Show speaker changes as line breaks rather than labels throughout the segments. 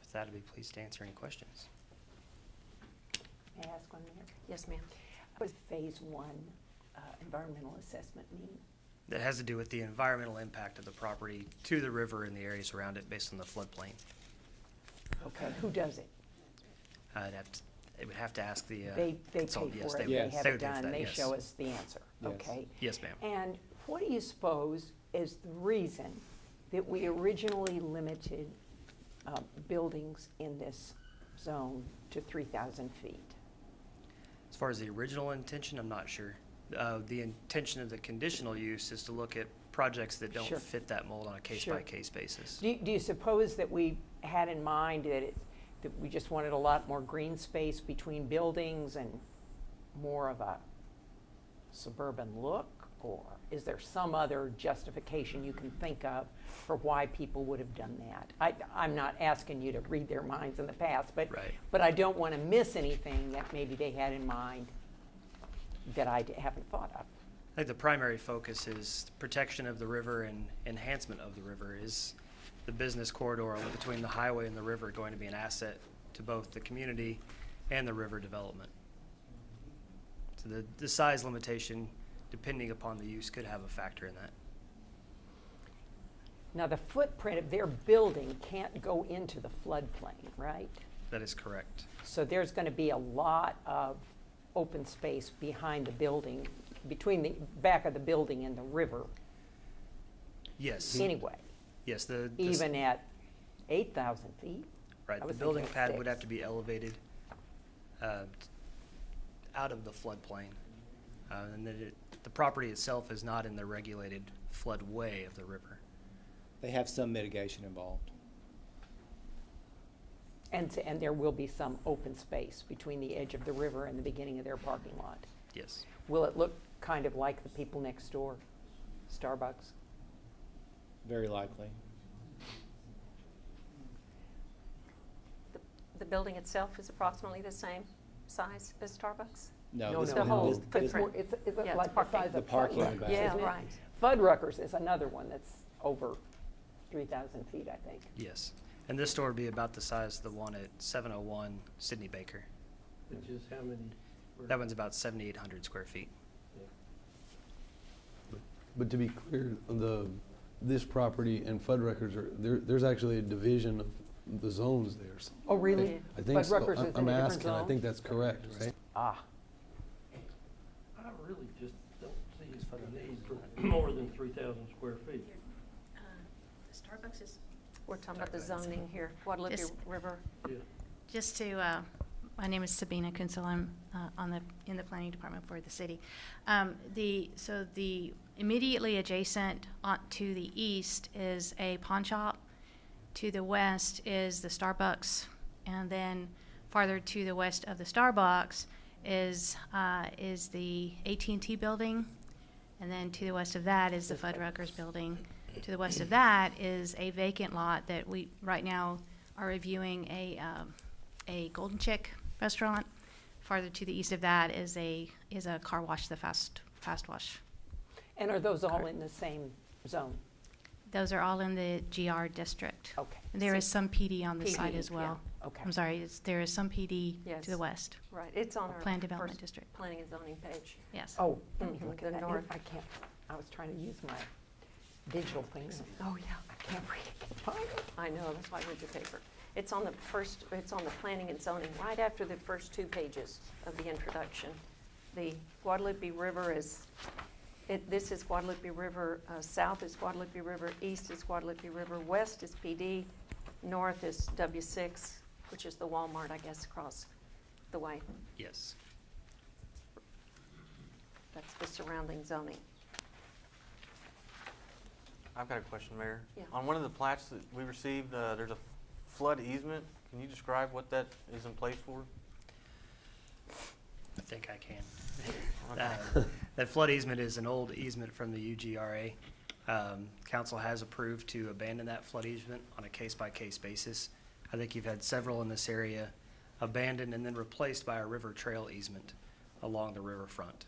With that, I'd be pleased to answer any questions.
May I ask one minute?
Yes, ma'am.
What does phase one uh, environmental assessment mean?
That has to do with the environmental impact of the property to the river and the areas around it based on the floodplain.
Okay, who does it?
Uh, I'd have to, it would have to ask the. uh,
They, they pay for
consultant. Yes,
it,
would-
they
Yes.
have
they
it
would pay for
done,
that,
they
yes.
show us the answer,
Yes.
okay?
Yes, ma'am.
And what do you suppose is the reason that we originally limited uh, buildings in this zone to 3,000 feet?
As far as the original intention, I'm not sure. Uh, The intention of the conditional use is to look at projects that don't
Sure.
fit that mold on a
Sure.
case-by-case basis.
Do you, do you suppose that we had in mind that it, that we just wanted a lot more green space between buildings and more of a suburban look? Or is there some other justification you can think of for why people would have done that? I, I'm not asking you to read their minds in the past, but,
Right.
but I don't want to miss anything that maybe they had in mind that I d- haven't thought of.
I think the primary focus is protection of the river and enhancement of the river. Is the business corridor between the highway and the river going to be an asset to both the community and the river development? So the, the size limitation, depending upon the use, could have a factor in that.
Now, the footprint of their building can't go into the floodplain, right?
That is correct.
So there's going to be a lot of open space behind the building, between the back of the building and the river
Yes,
anyway,
Mm-hmm. yes, the. the s-
even at 8,000 feet.
Right,
I
the
was thinking
building
of
pad would have
six.
to be elevated uh, t- out of the floodplain. Uh, And that it, the property itself is not in the regulated floodway of the river.
They have some mitigation involved.
And, and there will be some open space between the edge of the river and the beginning of their parking lot.
Yes,
Will it look kind of like the people next door, Starbucks?
Very likely.
The- The building itself is approximately the same size as Starbucks?
No,
No, no,
this-
The
this-
whole
this-
no, but it's more,
footprint.
it's, it's
Yeah, it's
like the
parking.
size of.
The parking
Fuddruckers,
back.
Yeah,
isn't it?
right.
Fuddruckers is another one that's over 3,000 feet, I think.
yes. And this store would be about the size of the one at 701 Sydney Baker.
Which is how many? were-
That one's about 7,800 square feet.
Yeah.
But to be clear, the, this property and FUD records are, there, there's actually a division of the zones there. so-
Oh, really?
Yeah.
I think
Fudd
so.
Ruckers
I'm-
is in a
I'm
different
asking, I
zone?
think that's correct, right?
Ah,
I really just don't see the need for more than three thousand square feet.
Uh, Starbucks is,
We're talking about the
Sorry, go ahead.
zoning here, Guadalupe
Just-
River.
Yeah.
just to, uh, my name is Sabina Kunzel, I'm uh, on the, in the planning department for the city. Um, The, so the immediately adjacent on- to the east is a pawn shop. To the west is the Starbucks. And then farther to the west of the Starbucks is, uh, is the AT&T building. And then to the west of that is the Fuddruckers building. To the west of that is a vacant lot that we, right now, are reviewing a, um, a Golden Chick restaurant. Farther to the east of that is a, is a car wash, the fast, fast wash.
and are those all in the same zone?
Those are all in the GR district.
Okay.
And there is some PD on the side
PD,
as well.
yeah, okay.
I'm sorry, it's, there is some PD
Yes.
to the west,
Right, it's on
A
our.
planned development
first
district.
Planning and zoning page.
yes.
Oh, let me
Mhm,
look
the
at that.
north.
I can't, I was trying to use my digital thing.
Oh, yeah.
I can't read, I can't find it.
I know, that's why I read your paper. It's on the first, it's on the planning and zoning, right after the first two pages of the introduction. The Guadalupe River is, it, this is Guadalupe River, uh, south is Guadalupe River, east is Guadalupe River, west is PD, north is W six, which is the Walmart, I guess, across the way.
Yes.
That's the surrounding zoning.
I've got a question, Mayor.
Yeah.
On one of the plats that we received, uh, there's a flood easement. Can you describe what that is in place for?
I think I can. Uh, That flood easement is an old easement from the UGRA. Um, Council has approved to abandon that flood easement on a case-by-case basis. I think you've had several in this area abandoned and then replaced by a river trail easement along the riverfront.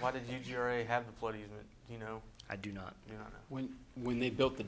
Why did UGRA have the flood easement? Do you know?
I do not
Do you not know?
When, when they built the